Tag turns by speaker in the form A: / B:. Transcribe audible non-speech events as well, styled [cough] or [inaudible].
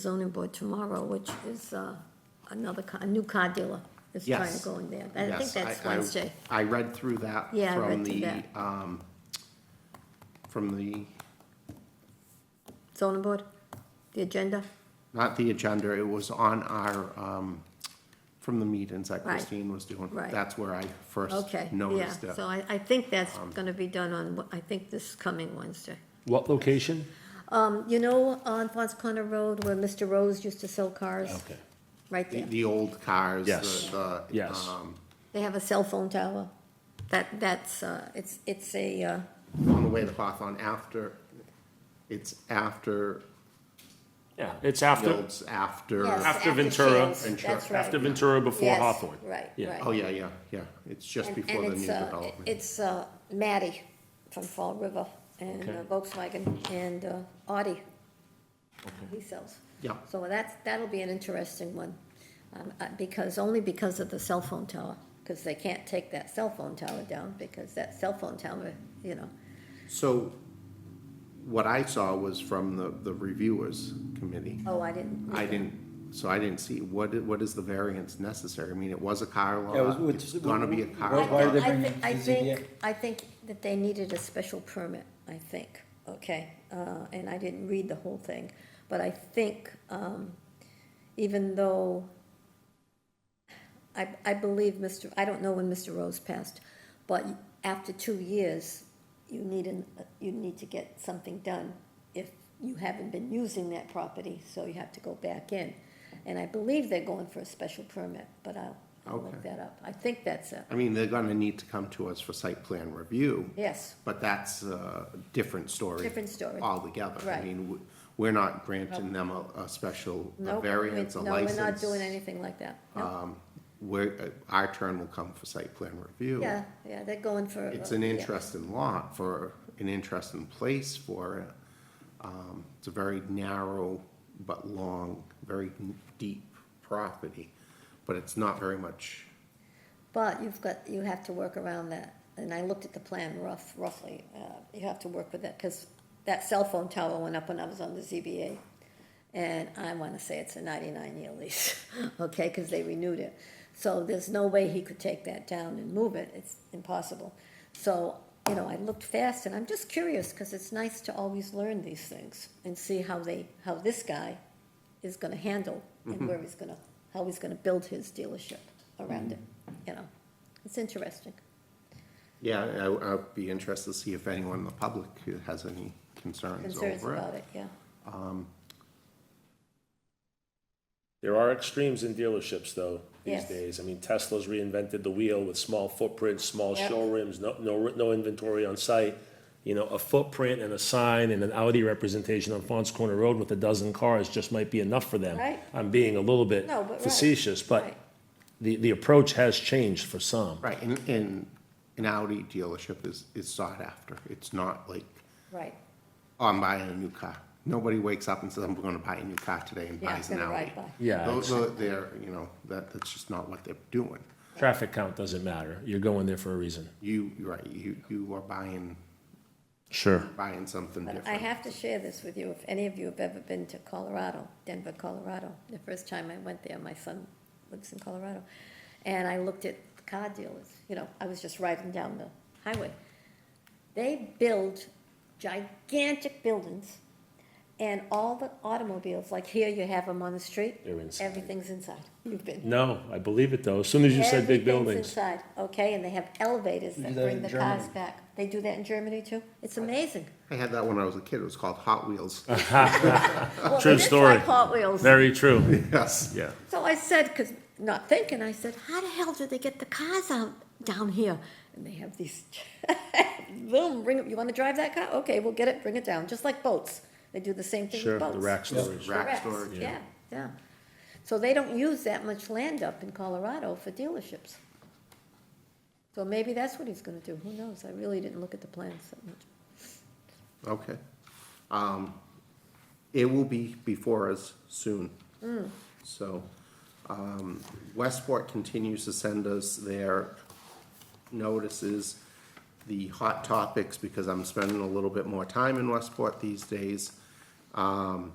A: zoning board tomorrow, which is uh, another, ca- a new car dealer is trying to
B: Yes.
A: go in there. I think
B: Yes,
A: that's
B: I- I-
A: Wednesday.
B: I read through that
A: Yeah, I
B: from
A: read through
B: the,
A: that.
B: um, from the,
A: Zoning board, the agenda?
B: not the agenda, it was on our, um, from the meetings that
A: Right.
B: Christine was doing.
A: Right.
B: That's where I first
A: Okay, yeah.
B: noticed it.
A: So I, I think that's
B: Um,
A: gonna be done on, I think this coming Wednesday.
C: What location?
A: Um, you know, on Fons Corner Road where Mr. Rose used to sell cars?
C: Okay.
A: Right
B: The,
A: there.
B: the old cars,
C: Yes.
B: the, the,
C: Yes.
B: um,
A: They have a cell phone tower. That, that's, uh, it's, it's a, uh,
B: on the way to Hawthorne after, it's after,
C: Yeah, it's after,
B: Fields after.
A: Yes.
C: after
A: After
C: Ventura.
A: Shields, that's right.
C: After Ventura before
A: Yes,
C: Hawthorne.
A: right,
C: Yeah.
A: right.
B: Oh, yeah, yeah, yeah. It's just
A: and-
B: before the
A: and
B: new
A: it's, uh,
B: development.
A: It's, uh, Matty from Fall River and
C: Okay.
A: uh, Volkswagen and, uh, Audi. He sells.
B: Yeah.
A: So that's, that'll be an interesting one, um, uh, because, only because of the cell phone tower, because they can't take that cell phone tower down, because that cell phone tower, you know,
B: So what I saw was from the, the reviewers committee.
A: oh, I didn't.
B: I didn't, so I didn't see, what, i- what is the variance necessary? I mean, it was a car
D: Yeah, it was-
B: lot,
D: which-
B: it's gonna be a
A: I
B: car
D: Why are
B: lot.
D: they
A: think- I
D: bringing
A: think- I
D: the ZBA?
A: think, I think that they needed a special permit, I think, okay? Uh, and I didn't read the whole thing, but I think, um, even though I, I believe Mr., I don't know when Mr. Rose passed, but after two years, you need an, you need to get something done if you haven't been using that property, so you have to go back in. And I believe they're going for a special permit, but I'll, I'll look
B: Okay.
A: that up. I think that's it.
B: I mean, they're gonna need to come to us for site plan review,
A: Yes,
B: but that's a different story.
A: Different story.
B: Altogether. I
A: Right.
B: mean, w- we're not granting them a, a special,
A: no.
B: a
A: we-
B: variance, a
A: No, we're not
B: license. Um,
A: doing anything like that. No.
B: We're, uh, our turn will come for site plan review.
A: Yeah, yeah, they're going for.
B: It's an
A: yeah.
B: interesting lot for, an interesting place for, um, it's a very narrow but long, very deep property, but it's not very much,
A: But you've got, you have to work around that, and I looked at the plan rough, roughly, uh, you have to work with that, because that cell phone tower went up when I was on the ZBA, and I want to say it's a ninety-nine year lease, [laughs] okay, because they renewed it. So there's no way he could take that down and move it, it's impossible. So, you know, I looked fast, and I'm just curious, because it's nice to always learn these things and see how they, how this guy is gonna handle
B: Mm-hmm.
A: and where he's gonna, how he's gonna build his dealership around it,
B: Mm-hmm.
A: you know. It's interesting.
B: yeah, I, I'd be interested to see if anyone in the public who has any concerns
A: Concerns
B: over
A: about
B: it. Um,
A: it, yeah.
E: There are extremes in dealerships, though, these
A: Yes.
E: days. I mean, Tesla's reinvented the wheel with small footprints, small
A: Yep.
E: showrooms, no, no, no inventory on site. You know, a footprint and a sign and an Audi representation on Fons Corner Road with a dozen cars just might be enough for them.
A: Right.
E: I'm being a little bit
A: No, but right.
E: facetious, but
A: Right.
E: the, the approach has changed for some.
B: Right, and, and an Audi dealership is, is sought after. It's not like,
A: Right.
B: oh, I'm buying a new car. Nobody wakes up and says, I'm gonna buy a new car today and
A: Yeah, it's
B: buys an
A: gonna
B: Audi.
A: ride by.
E: Yeah,
B: Those are, they're, you know, that, that's just not what they're doing.
E: Traffic count doesn't matter. You're going there for a reason.
B: You, you're right, you, you are buying,
E: Sure.
B: buying something
A: But I
B: different.
A: have to share this with you, if any of you have ever been to Colorado, Denver, Colorado. The first time I went there, my son lives in Colorado, and I looked at the car dealers, you know, I was just riding down the highway. They build gigantic buildings, and all the automobiles, like here you have them on the street.
E: They're inside.
A: Everything's inside, you've been.
E: No, I believe it, though. As soon as you said big
A: Everything's
E: buildings.
A: Inside, okay, and they have elevators
D: They
A: that
D: do that
A: bring
D: in
A: the cars
D: Germany.
A: back. They do that in Germany too? It's amazing.
B: I had that when I was a kid, it was called Hot
A: [laughs]
B: Wheels.
A: Well,
E: True
A: it is
E: story.
A: like Hot Wheels.
E: Very true.
B: Yes.
E: Yeah.
A: So I said, because, not thinking, I said, how the hell do they get the cars out down here? And they have these, [laughs] boom, bring it, you want to drive that car? Okay, we'll get it, bring it down, just like boats. They do the same thing
E: Sure,
A: with boats.
E: the rack storage.
A: The
B: Rack
A: racks,
B: storage.
A: Yeah, yeah. So they don't use that much land up in Colorado for dealerships. So maybe that's what he's going to do, who knows? I really didn't look at the plans that much.
B: Okay. Um, It will be before us soon.
A: Mm.
B: So, um, Westport continues to send us their notices, the hot topics, because I'm spending a little bit more time in Westport these days. Um,